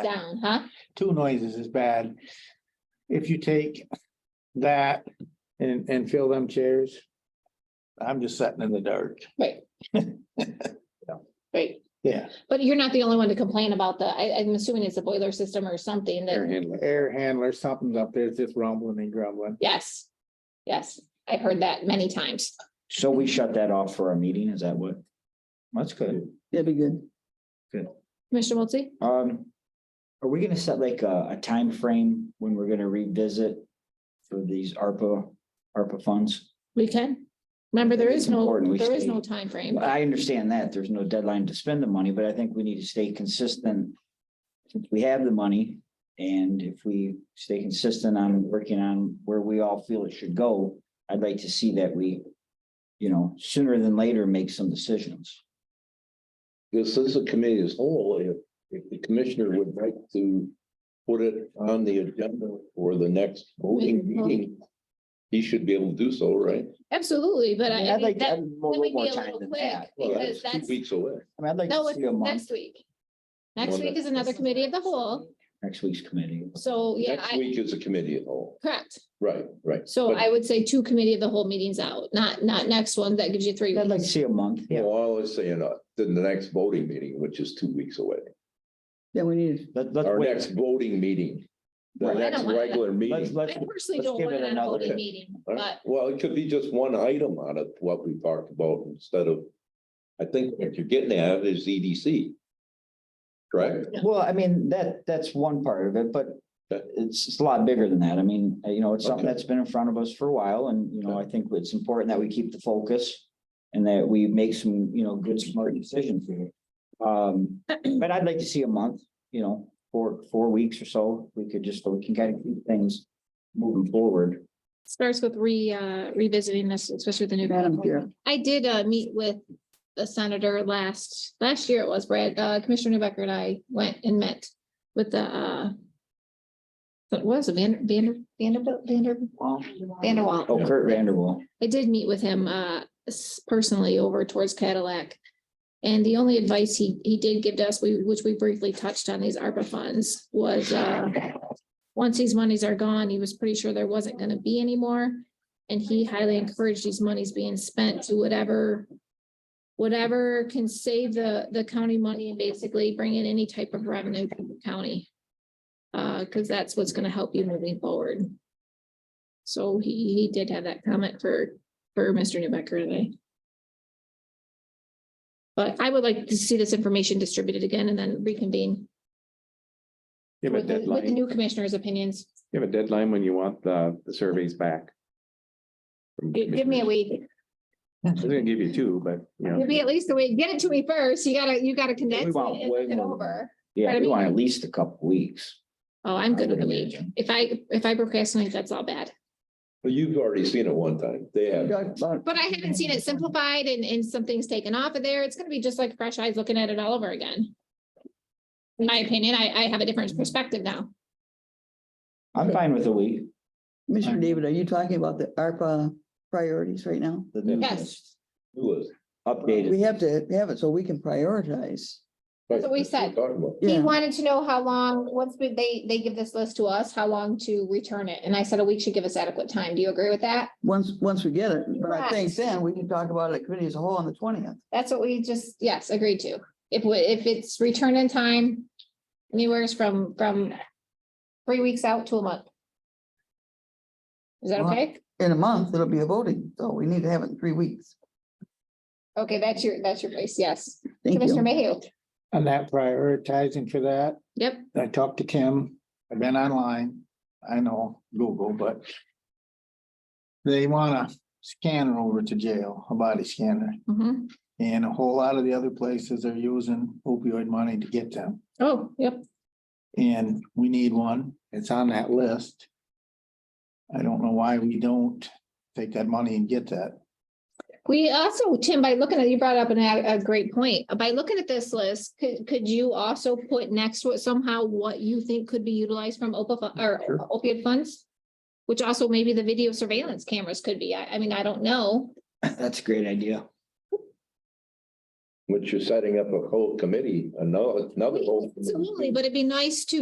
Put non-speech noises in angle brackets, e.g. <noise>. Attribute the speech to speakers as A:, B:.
A: bad.
B: down, huh?
A: two noises is bad. If you take that and, and fill them chairs, I'm just sitting in the dark.
B: Right.
C: <laughs>
B: Right,
A: Yeah,
B: but you're not the only one to complain about the, I, I'm assuming it's a boiler system or something
D: air
B: that,
D: handler.
A: air handler, something's up there, it's just rumbling and grumbling.
B: yes. Yes, I've heard that many times.
C: So we shut that off for our meeting, is that what?
A: That's good.
E: That'd be good.
B: Commissioner Wiltie?
C: Um, are we gonna set like a, a timeframe when we're gonna revisit for these ARPA, ARPA funds?
B: We can. Remember, there is
C: It's important
B: no,
C: we
B: there is
C: stay-
B: no time frame.
C: I understand that, there's no deadline to spend the money, but I think we need to stay consistent. Since we have the money, and if we stay consistent on working on where we all feel it should go, I'd like to see that we, you know, sooner than later, make some decisions.
D: This is a committee as whole. If, if the commissioner would like to put it on the agenda for the next voting
B: Wait, oh.
D: meeting, he should be able to do so, right?
B: Absolutely, but I, I
C: I'd
B: mean,
C: like to
B: that,
C: have
B: that
C: more-
B: would be a
C: more time
B: little
C: than
B: quick
C: that.
D: Well,
B: because
D: that's two
B: that's,
D: weeks away.
C: I mean, I'd like
B: no,
C: to
B: it's
C: see a month,
B: next week. Next
D: Well,
B: week
D: that-
B: is another committee of the whole,
C: next week's committee.
B: so, yeah,
D: Next
B: I,
D: week is a committee at all.
B: correct.
D: Right, right.
B: So
D: But-
B: I would say two committee of the whole meetings out, not, not next one, that gives you three.
C: I'd like to
B: weeks.
C: see a month.
D: Well, I was saying, uh, then the next voting meeting, which is two weeks away,
E: Then we need,
C: Let, let's
D: our
C: wait.
D: next voting meeting, the
C: Right.
B: I
D: next
B: don't wanna-
D: regular
C: Let's,
D: meeting.
B: I
C: let's,
B: personally
C: let's
B: don't
C: give
B: want
C: it
B: it on a
C: another-
B: voting
D: Okay.
B: meeting,
D: All
B: but
D: right. Well, it could be just one item on it, what we talked about instead of, I think what you're getting at is EDC. Correct?
C: Well, I mean, that, that's one part of it, but
D: Okay.
C: it's, it's a lot bigger than that. I mean, uh, you know, it's something
D: Okay.
C: that's been in front of us for a while and, you know, I think it's important that we keep the focus. And that we make some, you know, good smart decisions here.
B: <clears throat>
C: Um, but I'd like to see a month, you know, four, four weeks or so. We could just, we can kind of keep things moving forward.
B: starts with re, uh, revisiting this, especially with the new.
E: Madam Chair.
B: I did, uh, meet with the senator last, last year it was, Brad, uh, Commissioner Newbecker and I went and met with the, uh, what was it, Vander, Vander, Vanderbilt, Vander,
C: Well,
B: Vanderwall?
C: oh, Kurt Vanderwall.
B: I did meet with him uh s- personally over towards Cadillac. And the only advice he he did give to us, we which we briefly touched on these ARPA funds was uh. Once these monies are gone, he was pretty sure there wasn't gonna be any more. And he highly encouraged these monies being spent to whatever. Whatever can save the the county money and basically bring in any type of revenue to the county. Uh, cause that's what's gonna help you moving forward. So he, he did have that comment for, for Mr. Newbecker today. But I would like to see this information distributed again and then reconvene
F: You have a
B: with the, with the
F: deadline,
B: new commissioner's opinions.
F: you have a deadline when you want the, the surveys back. from
B: Gi- Give me a week,
F: commissioners. I was gonna give you two, but, you know,
B: give me at least a week, get it to me first, you gotta, you gotta condense it
C: want
B: and
C: way
B: look it
C: more.
B: over.
C: Yeah,
B: Pardon
C: we
B: me?
C: want at least a couple weeks.
B: Oh, I'm good
C: I
B: with a
C: would
B: week,
C: imagine.
B: if I, if I procrastinate, that's all bad,
D: Well, you've already seen it one time. They have.
B: but I haven't seen it simplified and, and something's taken off of there, it's gonna be just like fresh eyes looking at it all over again. In my opinion, I, I have a different perspective now.
C: I'm fine with a week.
E: Mr. David, are you talking about the ARPA priorities right now?
C: The new
B: Yes.
C: list,
D: Who is?
C: Updated. <laughs>
E: We have to have it so we can prioritize.
D: That's
B: what we said.
D: Talking about.
B: He
E: Yeah,
B: wanted to know how long, once we- they, they give this list to us, how long to return it. And I said a week should give us adequate time. Do you agree with that?
E: once, once we get it, but I think
B: Correct.
E: then we can talk about it at committee as a whole on the twentieth.
B: That's what we just, yes, agreed to. If, we- if it's return in time, anywhere from, from three weeks out to a month. Is that
E: Well-
B: okay?
E: In a month, it'll be a voting, so we need to have it in three weeks.
B: Okay, that's your, that's your place, yes.
E: Thank
B: Commissioner
E: you.
B: Mayhew.
A: And that prioritizing for that,
B: Yep.
A: I talked to Kim, I've been online, I know Google, but. They want a scanner over to jail, a body scanner,
B: Mhm.
A: and a whole lot of the other places are using opioid money to get them.
B: Oh, yep.
A: And we need one. It's on that list. I don't know why we don't take that money and get that.
B: We also, Tim, by looking at, you brought up an- a, a great point. By looking at this list, could, could you also put next to it somehow what you think could be utilized from OPA fu- or
F: Sure.
B: opioid funds? Which also maybe the video surveillance cameras could be. I, I mean, I don't know.
C: That's a great idea.
D: Which you're setting up a whole committee, another, another whole. committee.
B: Absolutely, but it'd be nice to